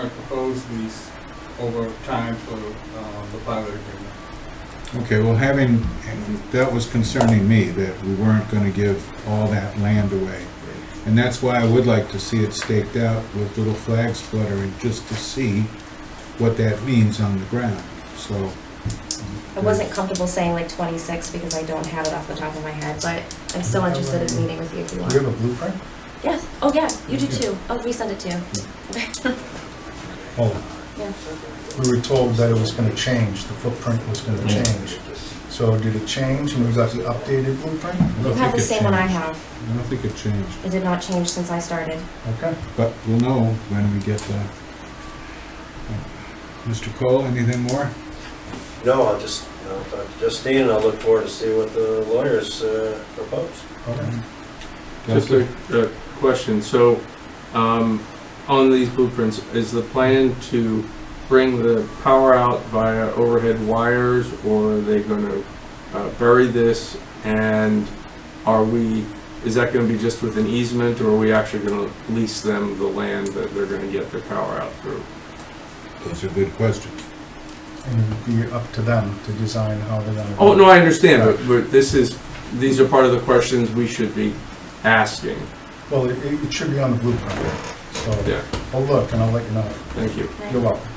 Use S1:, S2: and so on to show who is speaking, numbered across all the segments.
S1: current proposed lease over time for uh, the pilot agreement.
S2: Okay, well, having, that was concerning me, that we weren't gonna give all that land away. And that's why I would like to see it staked out with little flags fluttering, just to see what that means on the ground, so.
S3: I wasn't comfortable saying like twenty-six because I don't have it off the top of my head, but I'm still interested in meeting with you if you
S4: Do you
S3: want.
S4: have a blueprint?
S3: Yeah, oh yeah, you do too. I'll resend it to you.
S4: Oh,
S3: Yeah.
S4: we were told that it was gonna change, the footprint was gonna
S2: Yeah.
S4: change. So did it change and we got the updated blueprint?
S2: I don't
S3: You have
S2: think
S3: the
S2: it
S3: same one I
S2: changed.
S3: have.
S2: I don't think it changed,
S3: It did not change since I started.
S4: Okay.
S2: but we'll know when we get the. Mr. Cole, anything more?
S5: No, I'll just, you know, talk to Justine, and I'll look forward to see what the lawyers uh, propose.
S4: Okay.
S6: Just a, a question, so, um, on these blueprints, is the plan to bring the power out via overhead wires, or are they gonna uh, bury this, and are we, is that gonna be just with an easement, or are we actually gonna lease them the land that they're gonna get their power out through?
S2: Those are good questions.
S4: And it'd be up to them to design how they're gonna.
S6: Oh, no, I understand, but, but this is, these are part of the questions we should be asking,
S4: Well, it, it should be on the blueprint, so
S6: yeah,
S4: I'll look and I'll let you know.
S6: thank you.
S4: You're welcome.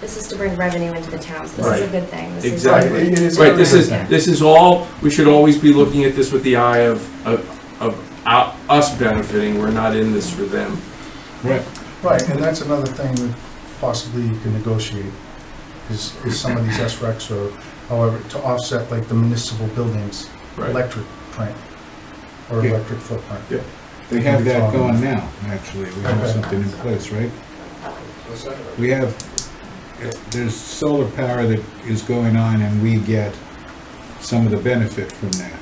S3: This is to bring revenue into the towns. This is a
S6: Right.
S3: good thing. This is-
S6: Exactly.
S4: Right, it- it is
S6: Right, this is,
S4: everything.
S6: this is all, we should always be looking at this with the eye of, of, of ou- us benefiting, we're not in this for them.
S2: Right,
S4: Right, and that's another thing that possibly you can negotiate, is, is some of these SRECs or however, to offset like the municipal buildings,
S6: Right,
S4: electric print, or
S2: Yeah.
S4: electric footprint.
S6: Yeah.
S2: they have that going now, actually, we have something in place, right?
S5: What's that?
S2: We have, eh, there's solar power that is going on and we get some of the benefit from that,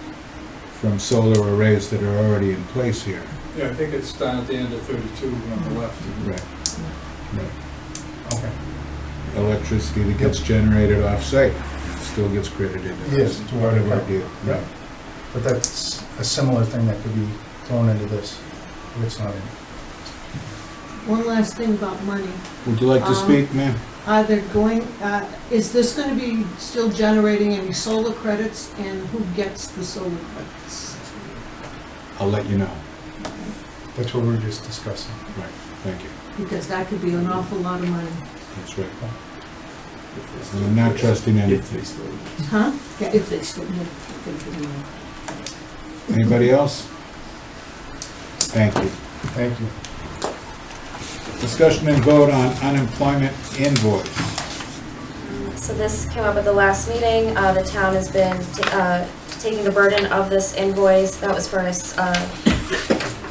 S2: from solar arrays that are already in place here.
S1: Yeah, I think it's down at the end of 32 on the left.
S2: Right.
S4: Okay,
S2: Electricity that gets generated off-site still gets credited. It's
S4: Yes, to
S2: part of
S4: our-
S2: our deal.
S4: right. but that's a similar thing that could be thrown into this, if it's not in.
S7: One last thing about money.
S2: Would you like to
S7: Um,
S2: speak, ma'am?
S7: Are they going, uh, is this gonna be still generating any solar credits and who gets the solar credits?
S2: I'll let you know.
S4: That's what we were just discussing.
S2: Thank you.
S7: Because that could be an awful lot of money.
S2: That's right. And I'm not trusting
S6: If
S2: anything.
S6: they still-
S7: Huh? Yeah, if they still, yeah.
S2: Anybody else? Thank you.
S4: Thank you.
S2: Discussion and vote on unemployment invoice.
S3: So this came up at the last meeting. Uh, the town has been, ta- uh, taking the burden of this invoice. That was for a s- uh,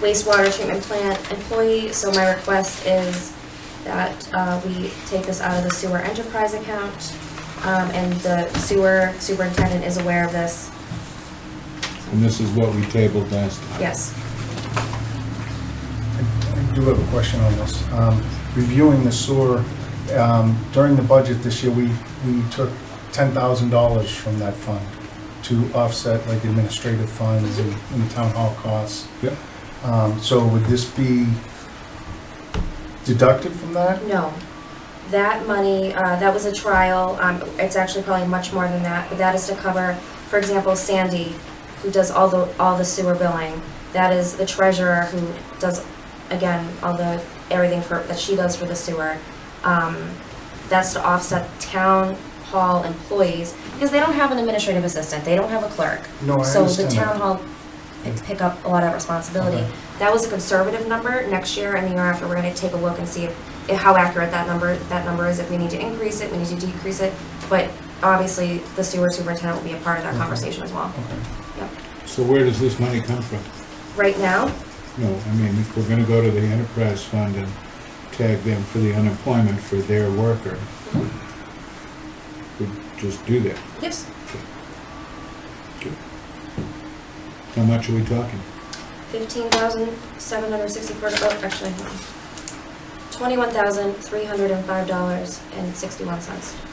S3: wastewater treatment plant employee. So my request is that, uh, we take this out of the sewer enterprise account. Um, and the sewer superintendent is aware of this.
S2: And this is what we tabled last time.
S3: Yes.
S4: I I do have a question on this. Um, Reviewing the sewer, um, during the budget this year, we, we took $10,000 from that fund to offset like administrative funds and and town hall costs.
S2: Yep.
S4: Um, So would this be deducted from that?
S3: No. That money, uh, that was a trial, um, it's actually probably much more than that, but that is to cover, for example, Sandy, who does all the, all the sewer billing. That is the treasurer who does, again, all the, everything for, that she does for the sewer. Um, that's to offset town hall employees, because they don't have an administrative assistant, they don't have a clerk.
S4: No, I
S3: So the
S4: understand that.
S3: town hall and pick up a lot of responsibility.
S4: Okay.
S3: That was a conservative number. Next year and the year after, we're gonna take a look and see if, if how accurate that number, that number is, if we need to increase it, we need to decrease it. But obviously, the sewer superintendent will be a part of that
S4: Mhm.
S3: conversation as well.
S4: Okay.
S2: So where does this money come from?
S3: Right now,
S2: No, I mean, if we're gonna go to the enterprise fund and tag them for the unemployment for their worker,
S3: Mhm.
S2: we just do that.
S3: yes,
S2: How much are we talking?
S3: fifteen thousand, seven hundred sixty-four, oh, actually, twenty-one thousand, three hundred and five dollars and sixty-one cents.